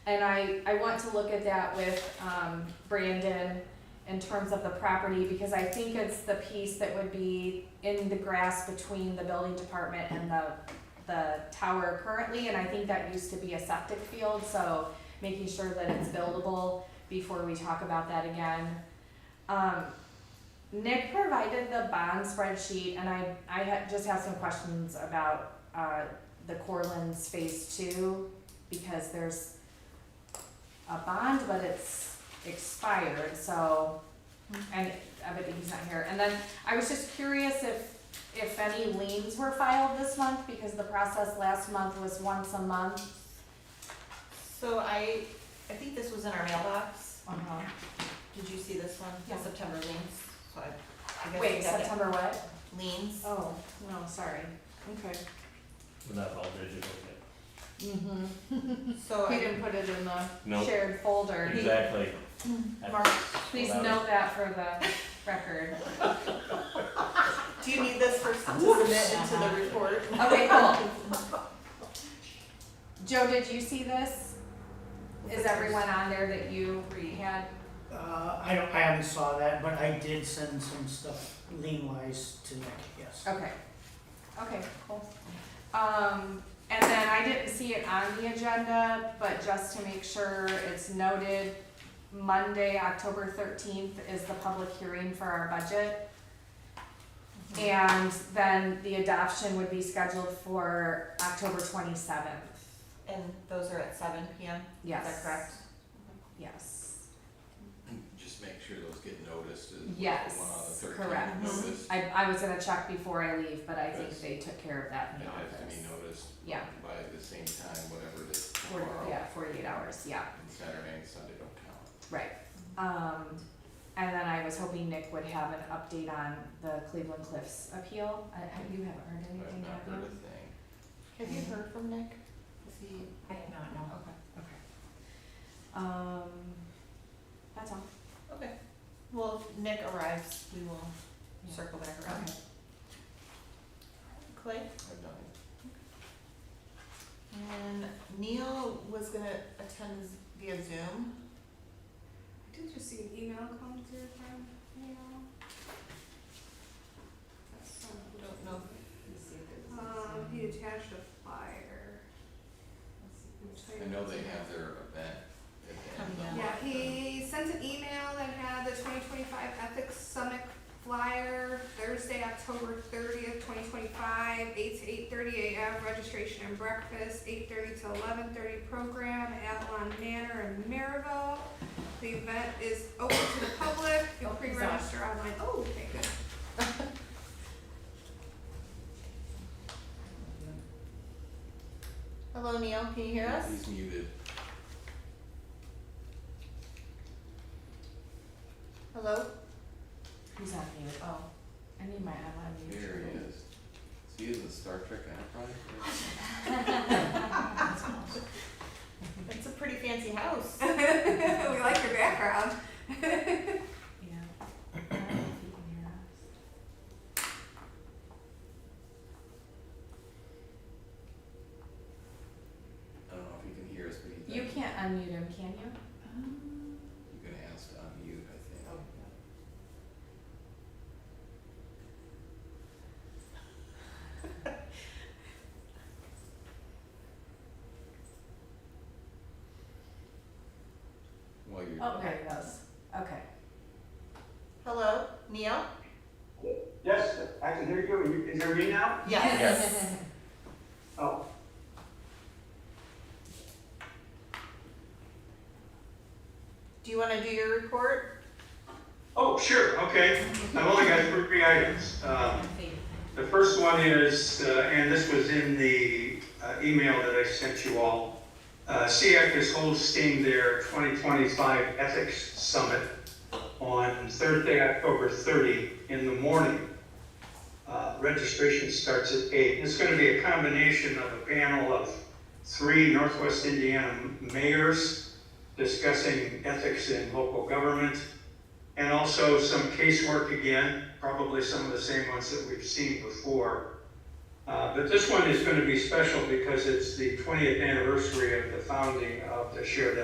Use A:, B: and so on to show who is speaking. A: And I, I want to look at that with, um, Brandon in terms of the property, because I think it's the piece that would be in the grass between the building department and the, the tower currently, and I think that used to be a septic field, so making sure that it's buildable before we talk about that again. Um, Nick provided the bond spreadsheet, and I, I had, just have some questions about, uh, the Corlands Phase Two, because there's a bond, but it's expired, so, and evidently he's not here. And then I was just curious if, if any liens were filed this month, because the process last month was once a month.
B: So I, I think this was in our mailbox.
A: Uh-huh.
B: Did you see this one?
A: Yeah.
B: September liens, so I, I guess we
A: Wait,
B: got
A: September what?
B: it. liens.
A: Oh, no, sorry. Okay.
C: Well, that's all digital, yeah.
A: Mm-hmm.
B: So
A: We
B: I,
A: didn't put it in the
C: Nope.
A: shared folder.
C: Exactly. That's-
B: Mark,
A: Hmm. Please
C: Well, that
A: note that for the record.
B: do you need this for, to submit into
A: Uh-huh.
B: the report?
A: Okay, cool. Joe, did you see this? Is everyone on there that you had?
D: Uh, I don't, I haven't saw that, but I did send some stuff lean wise to Nick, yes.
A: Okay, okay, cool. Um, and then I didn't see it on the agenda, but just to make sure it's noted, Monday, October thirteenth is the public hearing for our budget. And then the adoption would be scheduled for October twenty-seventh,
B: And those are at seven P M, is
A: yes.
B: that correct?
A: Yes,
E: Just make sure those get noticed as well,
A: Yes,
E: the one on the
A: correct. Mm-hmm.
E: thirteenth noticed.
A: I, I was gonna check before I leave, but I think
E: Yes.
A: they took care of that in
E: It
A: the
E: has to be
A: office.
E: noticed
A: Yeah.
E: by the same time, whatever it is
A: Forty-
E: tomorrow,
A: yeah, forty-eight hours, yeah.
E: and Saturday and Sunday don't count.
A: Right, um, and then I was hoping Nick would have an update on the Cleveland Cliffs appeal, I, I, you haven't heard
E: I've
A: anything,
E: not
A: have
E: heard a
A: you?
B: Have
E: thing.
B: you heard from Nick? Is he? Mm-hmm. I have not, no.
A: Okay. Um, that's all,
B: Okay, okay. Well, if Nick arrives, we will
A: Yeah.
B: circle back around.
A: Okay.
B: Clay?
E: I've done it.
B: And Neil was gonna attend via Zoom.
F: Did you see an email come through from Neil? That's not-
B: I Don't know. Uh,
F: Um, he attached a flyer. Let's see,
E: I
F: I'm
E: know
F: trying
E: they
F: to-
E: have their event at the end of the
B: Coming
E: month.
F: Yeah, he sent an email that had the twenty twenty-five Ethics Summit flyer, Thursday, October thirtieth, twenty twenty-five, eight to eight thirty AM, registration and breakfast, eight thirty to eleven thirty program, Avalon Manor in Maryville. The event is open to the public, you
A: Oh,
F: can
A: he's on.
F: pre-register online, oh, thank goodness.
B: Hello, Neil, can you hear us?
E: He's muted.
B: Hello?
A: who's on mute,
B: Oh.
A: I need my online mute.
E: There he is. Is he in the Star Trek Enterprise?
B: It's a pretty fancy house.
F: We like your background.
A: Yeah. I don't know if he can hear us.
E: I don't know if you can hear us, but he's.
A: You
E: not-
A: can't unmute him, can you?
E: You can ask to unmute, I think. While you're.
A: Oh, there he goes, okay.
B: Hello, Neil?
G: Yes, I can hear you. You- Is there me now?
E: Yes.
G: Oh,
B: Do you wanna do your report?
G: oh, sure, okay. I've only got three items. Um, The first one is, uh, and this was in the uh, email that I sent you all. Uh, SEAC is hosting their 2025 Ethics Summit on Thursday, October 30 in the morning. Uh, Registration starts at 8. It's going to be a combination of a panel of three Northwest Indiana mayors discussing ethics in local government, and also some casework again, probably some of the same ones that we've seen before. Uh, But this one is going to be special because it's the 20th anniversary of the founding of the Share That